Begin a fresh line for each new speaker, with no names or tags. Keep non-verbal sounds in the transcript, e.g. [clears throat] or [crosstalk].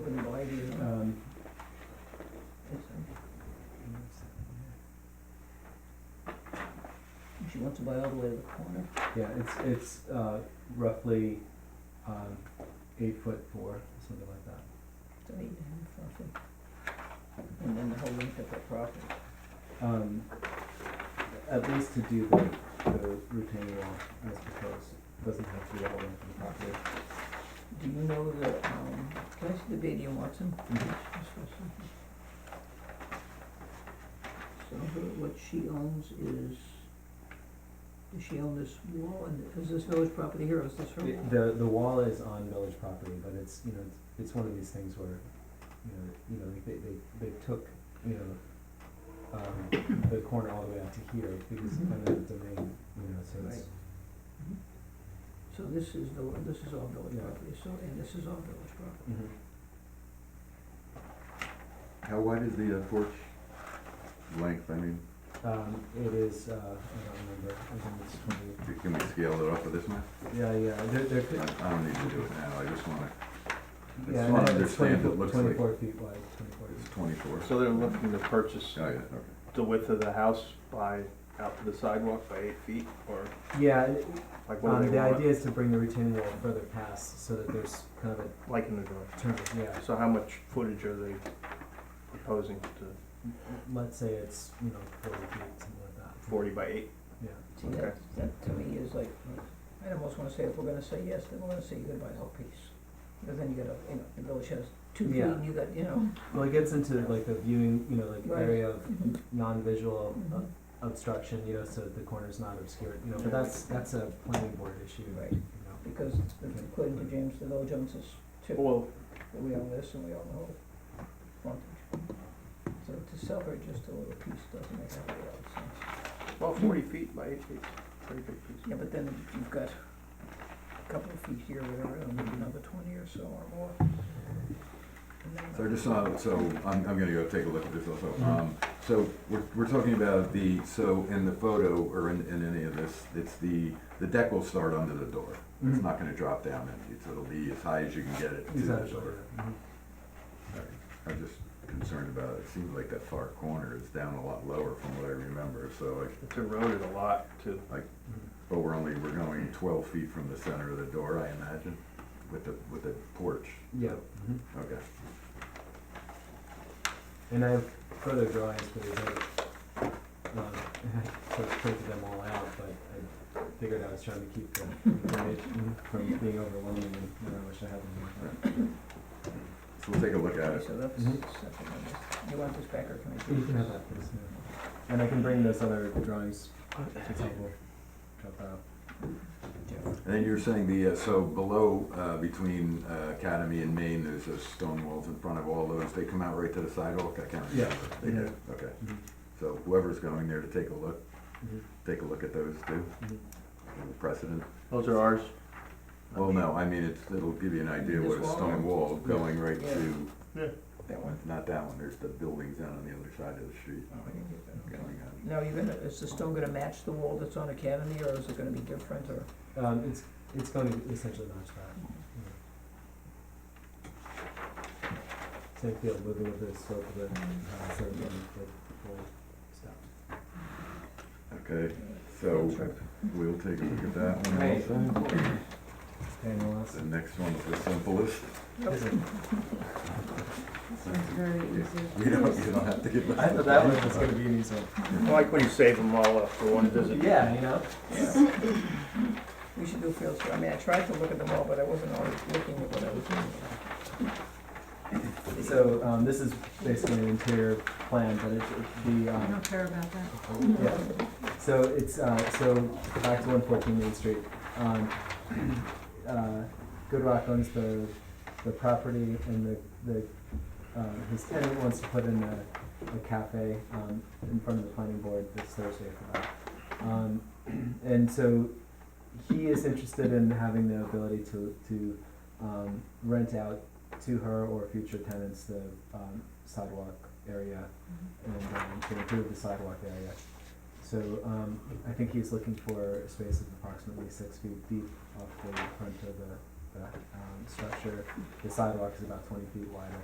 Um,
to buy all the way to the corner.
Yeah, it's, it's, uh, roughly, um, eight foot four, something like that.
It's eight and something. And then the whole length of the property.
Um, at least to do the, the retaining wall as proposed, doesn't have to be all in from the property.
Do you know the, um, can I see the video, Watson?
Mhm.
So her, what she owns is, does she own this wall and is this village property here or is this her
The-
wall?
The, the wall is on village property, but it's, you know, it's, it's one of these things where, you know, you know, they, they, they took, you know, um, the corner all the way out to here, because it's
Mhm.
kind of the domain, you know, so it's,
Right. So this is the, this is all village
Yeah.
property, so, and this is all village property.
Mhm.
How wide is the uh, porch length? I mean,
Um, it is, uh, I don't remember, I think it's twenty,
c- can we scale it off of this map?
yeah, yeah, there, there
I
could,
I don't need to do it now, I just wanna, I
yeah,
just wanna
no, it's
understand it
24
looks like
24 feet wide, twenty-four.
it's twenty-four.
So they're looking to purchase
Oh, yeah, okay.
the width of the house by, out to the sidewalk by eight feet, or
Yeah, it-
like what do
um,
they
the
want?
idea is to bring the retaining wall further past, so that there's kind of a
Like in the door.
turn, yeah,
So how much footage are they proposing to,
let's say it's, you know, forty feet, something like that.
forty by eight?
Yeah,
See, that, that to me is like, I almost wanna say, if we're gonna say yes, then we're gonna say you gotta buy the whole piece. Because then you gotta, you know, the village has two feet
Yeah.
and you got, you know.
well, it gets into like the viewing, you know, like
Right.
area of
Mhm.
non-visual uh,
Mhm.
obstruction, you know, so that the corner's not obscured, you know,
Yeah.
but that's, that's a planning board issue, you
Right.
know.
Because according to James, the village owns this too,
Well,
that we own this and we own the whole frontage. So to sell her just a little piece doesn't make a whole lot of sense.
well, forty feet by eight feet, pretty big piece.
Yeah, but then you've got a couple of feet here, whatever, and maybe another twenty or so or more. And then-
So I just saw, so I'm, I'm gonna go take a look at this also.
Mhm.
Um, so we're, we're talking about the, so in the photo or in, in any of this, it's the, the deck will start under the door. It's
Mhm.
not gonna drop down, and it's, it'll be as high as you can get it to the
Exactly,
door.
yeah. Mhm.
Alright, I'm just concerned about, it It seems like that far corner is down a lot lower from what I remember, so like,
It's eroded a lot too.
Mhm.
but we're only, we're going twelve feet from the center of the door, I imagine, with the, with the porch.
Yeah, mhm.
Okay,
and I have further drawings for these, other, um, [laughs] I sort of printed them all out, but I figured I was trying to keep the information from being overwhelming, and, you know, I wish I had them.
so we'll take a look at
Okay,
it.
so that's
Mhm.
something on this. You want this back or can I take this?
You can have that, please, yeah. And I can bring those other drawings, if it's helpful, drop that out.
Jeff.
And then you were saying the, uh, so below, uh, between uh, Academy and Maine, there's those stone walls in front of all those, they come out right to the sidewalk, I can't
Yeah.
remember. They do, okay,
Mhm.
so whoever's going there to take a look,
Mhm.
take a look at those too,
Mhm.
and the precedent.
Those are ours.
Well, no, I mean, it's, it'll give you an idea what a
This wall?
stone wall going right
Yeah.
to,
That one?
not that one, there's the buildings down on the other side of the street.
Oh, I didn't get that, okay.
going on.
Now, you're gonna, is the stone gonna match the wall that's on Academy, or is it gonna be different, or?
Um, it's, it's going to essentially match that. Same field moving with the slope of the, uh, sort of, um, the whole stuff.
Okay, so we'll take a look at that one also.
And the last,
The next one's the simplest. [laughs]
Very easy.
You don't, you don't have to get.
I thought that
it's
was,
gonna be an easy one.
I like when you save them all up for one visit.
Yeah, you know?
Yeah. [laughs] We should do field survey, I mean, I tried to look at them all, but I wasn't always looking at what I was doing.
So, um, this is basically an interior plan, but it's, it's the,
I
um,
don't care about that.
Yeah,
Mm-hmm.
so it's, uh, so back to one fourteen Main Street. Um, uh, Good Rock owns the, the property and the, the, uh, his tenant wants to put in a, a cafe, um, in front of the planning board this Thursday for that. Um, [clears throat] and so he is interested in having the ability to, to, um, rent out to her or future tenants the, um, sidewalk area and, um, to improve the sidewalk area. So, um, I think he's looking for a space of approximately six feet deep off the front of the, the, um, structure. The sidewalk is about twenty feet wide, I